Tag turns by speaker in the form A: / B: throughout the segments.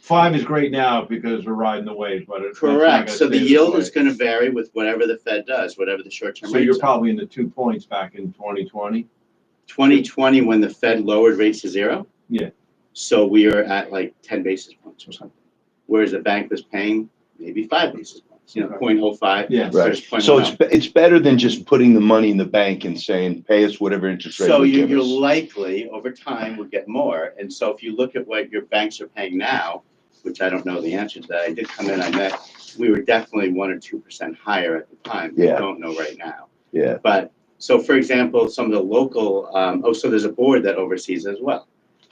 A: Five is great now because we're riding the wave, but it's. that's not
B: Correct,
A: gonna
B: so the
A: stay this
B: yield
A: way.
B: is gonna vary with whatever the Fed does, whatever the short-term
A: So you're
B: rates are.
A: probably in the two points back in twenty twenty.
B: Twenty twenty, when the Fed lowered rates to zero?
A: Yeah.
B: So we are at like ten basis points or something, whereas the bank was paying maybe five basis points, you know,
A: Okay.
B: point oh five.
A: Yeah.
C: Right. So it's, be- it's better than just putting the money in the bank and saying, pay us whatever interest rate
B: So
C: you
B: you,
C: give
B: you're
C: us.
B: likely, over time, will get more. And so if you look at what your banks are paying now, which I don't know the answer to that, I did come in, I met, we were definitely one or two percent higher at the time. We
C: Yeah.
B: Don't know right now.
C: Yeah,
B: But, so for example, some of the local, um, oh, so there's a board that oversees as well.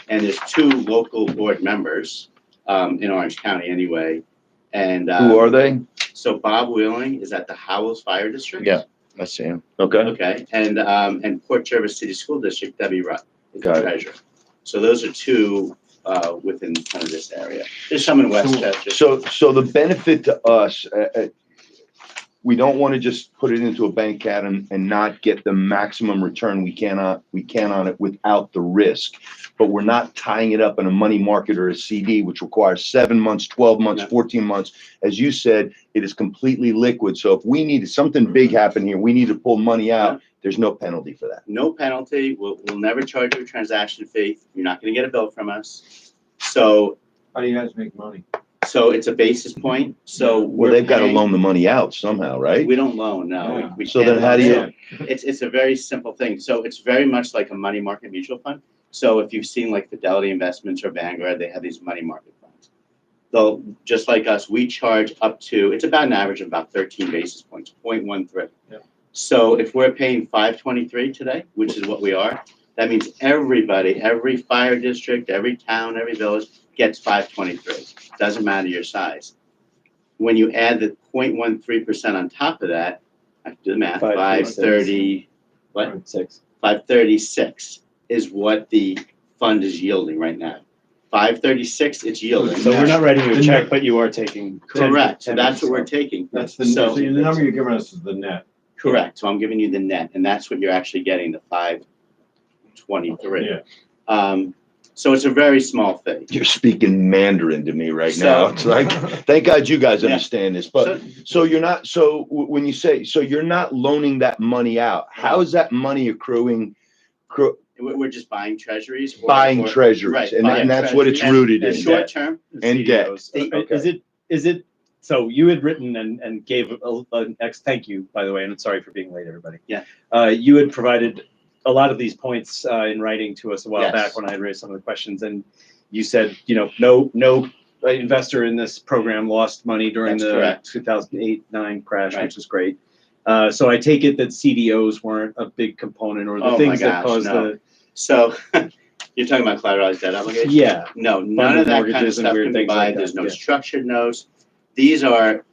B: And there's two local board members, um, in Orange County anyway. And, uh,
C: who are they?
B: so Bob Wheeling is at the Howells Fire District.
C: Yeah. I see them. Okay,
B: Okay, and, um, and Port Jervis City School District, Debbie Rutt is the
C: Got it.
B: treasurer. So those are two, uh, within kind of this area. There's some in Westchester.
C: so, so the benefit to us, uh, uh, we don't want to just put it into a bank account and, and not get the maximum return we cannot, we can on it without the risk. But we're not tying it up in a money market or a CD, which requires seven months, twelve months,
B: No.
C: fourteen months. As you said, it is completely liquid. So if we need, something big happen here, we need to pull money out, there's no penalty for that.
B: No penalty, we'll, we'll never charge you a transaction fee, you're not gonna get a bill from us. So,
A: How do you guys make money?
B: so it's a basis point, so
C: Well,
B: we're
C: they've got to
B: paying-
C: loan the money out somehow, right?
B: We don't loan, no. we-
A: Yeah.
B: we
C: So
B: can't
C: then how
B: loan.
C: do you-
B: So It's, it's a very simple thing, so it's very much like a money market mutual fund. So if you've seen like Fidelity Investments or Vanguard, they have these money market funds. They'll, just like us, we charge up to, it's about an average of about thirteen basis points, point one three.
A: Yeah.
B: So if we're paying five twenty-three today, which is what we are, that means everybody, every fire district, every town, every village gets five twenty-three. Doesn't matter your size. When you add the 0.13 percent on top of that, I have to do the math, five
D: 5.36.
B: thirty, what?
D: Six.
B: Five thirty-six is what the fund is yielding right now. Five thirty-six, it's yielding.
D: So we're not writing you
A: The
D: a check, but you are taking. 10
B: Correct, so
D: 10
B: that's what we're
D: percent.
B: taking.
A: That's the,
B: So-
A: so the number you're giving us is the net.
B: Correct, so I'm giving you the net, and that's what you're actually getting, the five twenty-three.
A: Yeah.
B: Um, so it's a very small fee.
C: You're speaking Mandarin to me right
B: So-
C: now. It's like, thank God you guys
B: Yeah.
C: understand this,
B: So-
C: but so you're not, so w- when you say, so you're not loaning that money out, how is that money accruing? cr-
B: We're, we're just buying treasuries. or-
C: Buying
B: or-
C: treasuries
B: right,
C: and
B: buying
C: and that's what it's
B: treasuries.
C: rooted
B: And
C: in.
B: Short term,
C: And debt.
D: CDOs.
C: Okay.
D: Is it, is it, so you had written and, and gave a- an ex, thank you, by the way, and I'm sorry for being late, everybody.
B: Yeah.
D: Uh, you had provided a lot of these points, uh, in writing to us a while
B: Yes.
D: back when I had raised some of the questions and you said, you know, no, no uh, investor in this program lost money during
B: That's
D: the
B: correct.
D: two thousand eight, nine crash,
B: Right.
D: which is great. Uh, so I take it that CDOs weren't a big component or
B: Oh
D: the
B: my
D: things that
B: gosh,
D: caused
B: no.
D: the,
B: so you're talking about collateralized debt obligations?
D: yeah.
B: No, none of that kind of
D: mortgages and
B: stuff
D: weird
B: can be
D: things like
B: bought.
D: that,
B: There's no
D: yeah.
B: structured notes. These are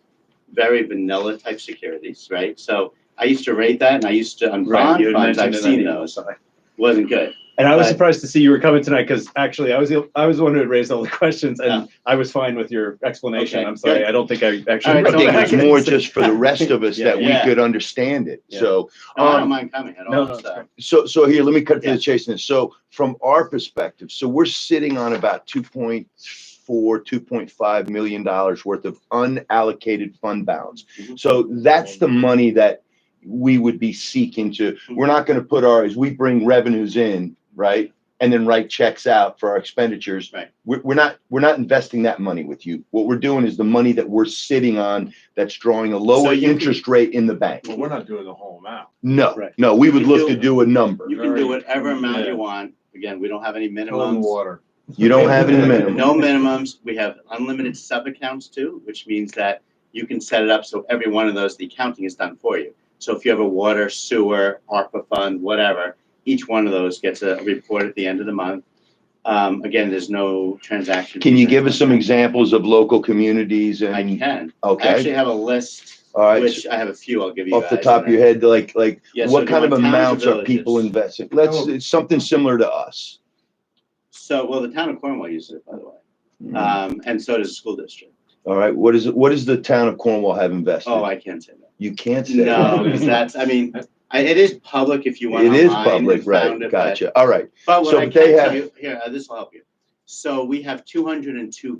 B: very vanilla type securities, right? So I used to rate that and I used to, on
D: Right,
B: bond
D: you had
B: funds, I've
D: mentioned it on
B: seen
D: the-
B: those. Wasn't good.
D: And I was
B: But-
D: surprised to see you were coming tonight because actually I was the- I was the one who had raised all the questions and
B: Oh.
D: I was fine with your explanation.
B: Okay,
D: I'm sorry,
B: good.
D: I don't think I
B: All
D: actually.
B: right,
C: I
D: wrote
B: so
C: think
D: back
C: it was
D: and
C: more
D: said-
C: just for the rest of us
D: Yeah.
C: that we
B: Yeah.
C: could understand it.
D: Yeah.
C: So,
B: No, Oh, I
C: Um,
B: don't mind coming at
D: no,
B: all,
D: no,
B: so.
C: so, so here, let me cut to
B: Yeah.
C: the chase. Then, so from our perspective, so we're sitting on about 2.4, 2.5 million dollars worth of unallocated fund balance.
B: Mhm.
C: So that's the money that we would be seeking to.
B: Mm-hmm.
C: We're not going to put our as we bring revenues in, right, and then write checks out for our expenditures.
B: Right.
C: We're, we're not we're not investing that money with you. What we're doing is the money that we're sitting on that's drawing a lower
B: you can-
C: interest rate in the bank.
A: Well, we're not doing the whole amount.
C: No,
D: Right.
C: no, we would
B: You
C: look to
B: do-
C: do a number.
B: You can do whatever amount
A: Yeah.
B: you want. Again, we don't have any
A: Cold
B: minimums.
A: water.
C: You don't have any minimum.
B: No minimums. We have unlimited sub-accounts too, which means that you can set it up so every one of those, the accounting is done for you. So if you have a water, sewer, ARPA fund, whatever, each one of those gets a report at the end of the month. Um, again, there's no transaction.
C: Can you give us some examples of local communities
B: I
C: and,
B: can. I actually
C: okay,
B: have a list,
C: all right, so
B: which I have a few I'll give you
C: off the
B: guys.
C: top of your head, like, like,
B: Yeah, so
C: what kind of
B: the towns and
C: amounts are people
B: villages.
C: investing? Let's,
A: Oh.
C: it's something similar to us.
B: So, well, the town of Cornwall uses it, by the way.
C: Mm-hmm.
B: Um, and so does the school district.
C: All right, what is, it? what does the town of Cornwall have
B: Oh,
C: invested?
B: I can't say that.
C: You can't say.
B: No,
C: that.
B: because that's, I mean, I, it is public if you want.
C: It is
B: online and
C: public, right,
B: found it, but-
C: gotcha, all right.
B: But
C: So
B: what I
C: they
B: can tell
C: have-
B: you, here, uh, this will help you. So we have two hundred and two